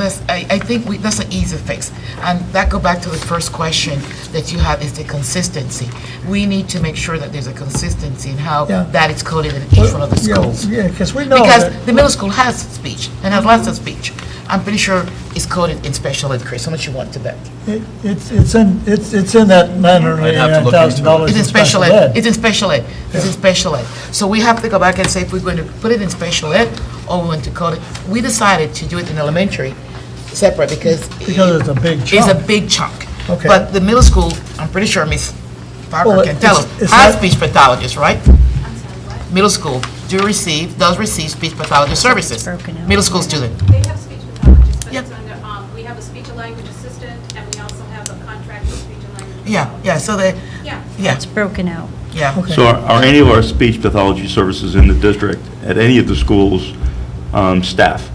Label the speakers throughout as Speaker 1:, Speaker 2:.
Speaker 1: I think we, that's an easy fix. And that go back to the first question that you have, is the consistency. We need to make sure that there's a consistency in how
Speaker 2: Yeah.
Speaker 1: that is coded in each one of the
Speaker 2: Yeah,
Speaker 1: schools.
Speaker 2: Yeah, because we know
Speaker 1: Because
Speaker 2: that,
Speaker 1: the middle school has speech and has lots of speech. I'm pretty sure it's coded in special ed, Chris, how much you want to bet?
Speaker 2: it- it's, it's in, it's, it's in that nine hundred
Speaker 3: I'd have to
Speaker 2: eighty-nine
Speaker 3: look into
Speaker 2: thousand dollars
Speaker 1: It's
Speaker 2: in special
Speaker 1: It's
Speaker 2: ed.
Speaker 1: in special ed, it's in special ed. So we have to go back and say if we're going to put it in special ed or we want to code it. We decided to do it in elementary, separate, because.
Speaker 2: Because it's a big
Speaker 1: It's a
Speaker 2: chunk.
Speaker 1: big chunk.
Speaker 2: Okay.
Speaker 1: But the middle school, I'm pretty sure Ms. Parker
Speaker 2: Well,
Speaker 1: can tell
Speaker 2: it's-
Speaker 1: us,
Speaker 2: it's
Speaker 1: has
Speaker 2: not-
Speaker 1: speech pathologists, right? Middle school do receive, does receive speech pathologist services.
Speaker 4: broken out.
Speaker 1: Middle school student.
Speaker 5: They have speech pathologists, but
Speaker 1: Yeah.
Speaker 5: it's under, um, we have a speech and language assistant, and we also have a contracted speech and language.
Speaker 1: Yeah, yeah, so they,
Speaker 5: Yeah.
Speaker 1: yeah,
Speaker 4: It's broken out.
Speaker 1: yeah.
Speaker 2: Okay.
Speaker 6: So are- are any of our speech pathology services in the district, at any of the schools, um, staff?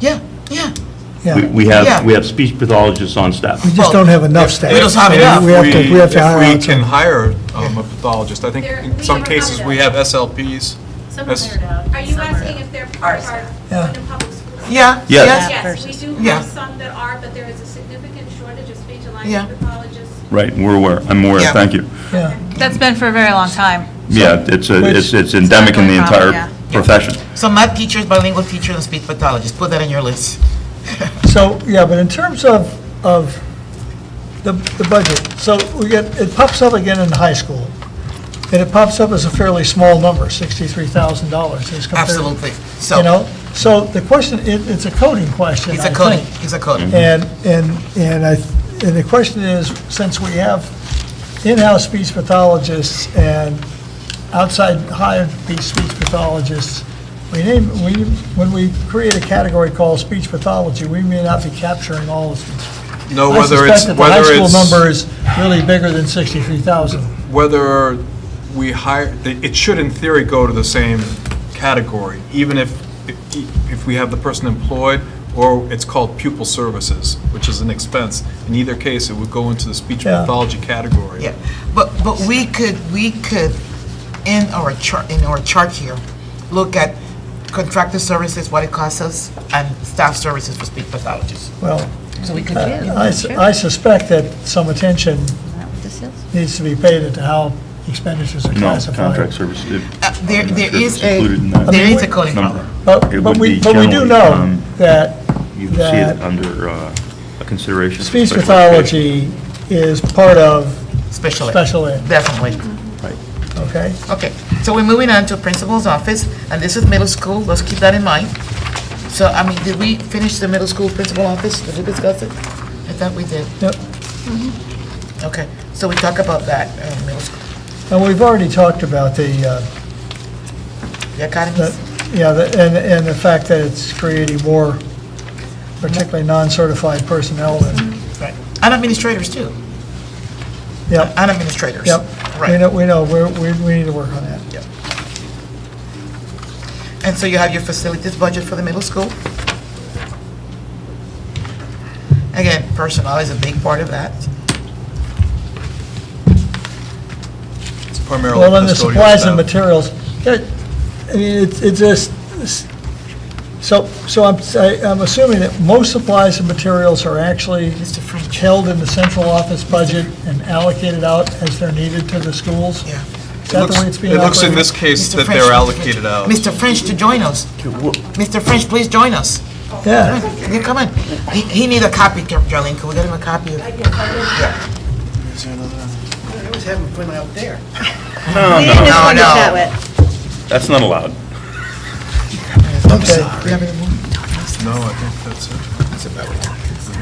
Speaker 1: Yeah, yeah.
Speaker 6: We-
Speaker 2: Yeah,
Speaker 6: We
Speaker 1: Yeah.
Speaker 6: have, we have speech pathologists on staff.
Speaker 2: we just don't have enough staff.
Speaker 1: We don't have enough.
Speaker 2: We have to, we have to
Speaker 3: If
Speaker 2: hire out
Speaker 3: If we can
Speaker 2: some.
Speaker 3: hire um, a pathologist, I think
Speaker 5: There-
Speaker 3: in
Speaker 5: we
Speaker 3: some
Speaker 5: have
Speaker 3: cases, we have
Speaker 5: another.
Speaker 3: SLPs.
Speaker 7: Some are
Speaker 3: That's-
Speaker 7: hired out.
Speaker 5: Are you
Speaker 7: some
Speaker 5: asking if they're part of
Speaker 2: Yeah.
Speaker 5: our London Public Schools?
Speaker 1: Yeah, yes.
Speaker 6: Yes.
Speaker 5: Yes, we do
Speaker 1: Yeah.
Speaker 5: have some that are, but there is a significant shortage of speech and
Speaker 1: Yeah.
Speaker 5: language pathologists.
Speaker 6: Right, we're aware, I'm aware,
Speaker 1: Yeah.
Speaker 6: thank you.
Speaker 2: Yeah.
Speaker 8: That's been for a very long time.
Speaker 6: Yeah, it's, a- it's it's endemic in the
Speaker 8: It's not going
Speaker 6: entire
Speaker 8: problem,
Speaker 6: profession.
Speaker 1: So math teachers, bilingual teachers, and speech pathologists, put that on your list.
Speaker 2: So, yeah, but in terms of, of the, the budget, so we get, it pops up again in high school, and it pops up as a fairly small number, sixty-three thousand dollars as compared.
Speaker 1: Absolutely.
Speaker 2: You
Speaker 1: So,
Speaker 2: know, so the question, it, it's a coding question,
Speaker 1: it's a
Speaker 2: I
Speaker 1: coding,
Speaker 2: think.
Speaker 1: it's a coding.
Speaker 2: And, and, and I, and the question is, since we have in-house speech pathologists and outside hired speech speech pathologists, we name, we, when we create a category called speech pathology, we may not be capturing all of speech.
Speaker 3: No,
Speaker 2: I
Speaker 3: whether
Speaker 2: suspect
Speaker 3: it's,
Speaker 2: that the high
Speaker 3: whether
Speaker 2: school
Speaker 3: it's.
Speaker 2: number is really bigger than sixty-three thousand.
Speaker 3: whether we hire, it it should in theory go to the same category, even if, if we have the person employed, or it's called pupil services, which is an expense. In either case, it would go into the speech
Speaker 2: Yeah.
Speaker 3: pathology category.
Speaker 1: Yeah, but, but we could, we could, in our chart, in our chart here, look at contracted services, what it costs us, and staff services for speech pathologists.
Speaker 2: Well, uh,
Speaker 1: So we could,
Speaker 2: I, su- I suspect that some attention
Speaker 4: Isn't that what this is?
Speaker 2: needs to be paid into how expenditures are
Speaker 6: No,
Speaker 2: classified.
Speaker 6: contract services.
Speaker 1: Uh, there-
Speaker 6: I'm
Speaker 1: there
Speaker 6: not sure if
Speaker 1: is
Speaker 6: it's
Speaker 1: a-
Speaker 6: included in that
Speaker 1: there is a coding
Speaker 6: number.
Speaker 1: problem.
Speaker 6: It
Speaker 2: But, but
Speaker 6: would
Speaker 2: we,
Speaker 6: be
Speaker 2: but we do
Speaker 6: generally,
Speaker 2: know
Speaker 6: um,
Speaker 2: that,
Speaker 6: You can see it
Speaker 2: that
Speaker 6: under uh, a consideration. for
Speaker 2: speech
Speaker 6: special education.
Speaker 2: pathology is part of
Speaker 1: special ed,
Speaker 2: special ed,
Speaker 1: definitely.
Speaker 2: okay?
Speaker 1: Okay, so we're moving on to principal's office, and this is middle school, let's keep that in mind. So, I mean, did we finish the middle school principal office? Did we discuss it? I thought we did.
Speaker 2: Yep.
Speaker 1: Okay, so we talk about that, uh, middle school,
Speaker 2: And we've already talked about the, uh,
Speaker 1: the academies.
Speaker 2: That- Yeah, the- and, and the fact that it's creating more, particularly non-certified personnel, and,
Speaker 1: Right. And administrators too,
Speaker 2: yep,
Speaker 1: and administrators.
Speaker 2: yep. We
Speaker 1: Right.
Speaker 2: know, we know, we're, we, we need to work on that.
Speaker 1: And so you have your facilities budget for the middle school. Again, personnel is a big part of that.
Speaker 3: It's primarily
Speaker 2: Well, then the
Speaker 3: custodial
Speaker 2: supplies and
Speaker 3: staff.
Speaker 2: materials, that, I mean, it's, it's just, it's- so, so I'm, I- I'm assuming that most supplies and materials are actually
Speaker 1: Mr. French.
Speaker 2: held in the central office budget and allocated out as they're needed to the schools?
Speaker 1: Yeah.
Speaker 2: Is
Speaker 3: It
Speaker 2: that the way
Speaker 3: looks-
Speaker 2: it's being
Speaker 3: It looks in
Speaker 2: operated?
Speaker 3: this case
Speaker 1: Mr.
Speaker 3: that
Speaker 1: French,
Speaker 3: they're allocated out.
Speaker 1: Mr. French to join us. Mr. French, please join us.
Speaker 2: Yeah,
Speaker 1: You come in. He, he need a copy, Ger- Gerlene, can we get him a copy? of-
Speaker 9: I was having fun out there.
Speaker 1: No, no.
Speaker 6: That's not allowed.
Speaker 2: okay.
Speaker 3: No, I think that's it. That's about it.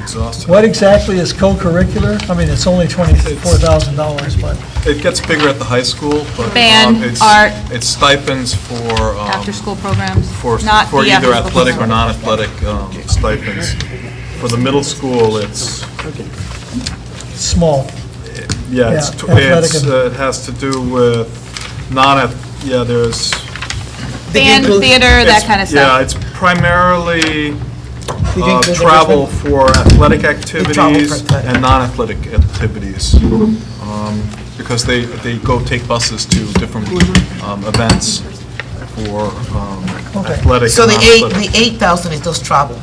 Speaker 3: Exhausted.
Speaker 2: What exactly is co-curricular? I mean, it's only $24,000, but,
Speaker 3: It gets bigger at the high school, but. um,
Speaker 8: Band,
Speaker 3: it's-
Speaker 8: art.
Speaker 3: It's stipends for. um,
Speaker 8: After-school programs,
Speaker 3: for,
Speaker 8: not
Speaker 3: for
Speaker 8: the
Speaker 3: either
Speaker 8: after-school
Speaker 3: athletic or
Speaker 8: program.
Speaker 3: non-athletic um, stipends. For the middle school, it's,
Speaker 2: small.
Speaker 3: yeah, it's,
Speaker 2: Yeah,
Speaker 3: tw-
Speaker 2: athletic
Speaker 3: it's,
Speaker 2: and-
Speaker 3: uh, it has to do with non, yeah, there's.
Speaker 8: Band, theater, that
Speaker 3: it's-
Speaker 8: kind of
Speaker 3: Yeah,
Speaker 8: stuff.
Speaker 3: it's primarily uh,
Speaker 1: include everything?
Speaker 3: travel for athletic activities
Speaker 1: athletic.
Speaker 3: and non-athletic activities. um, Because they, they go take buses to different um, events for um, athletic.
Speaker 1: So
Speaker 3: and
Speaker 1: the eight,
Speaker 3: non-athletic.
Speaker 1: the eight thousand is just travel.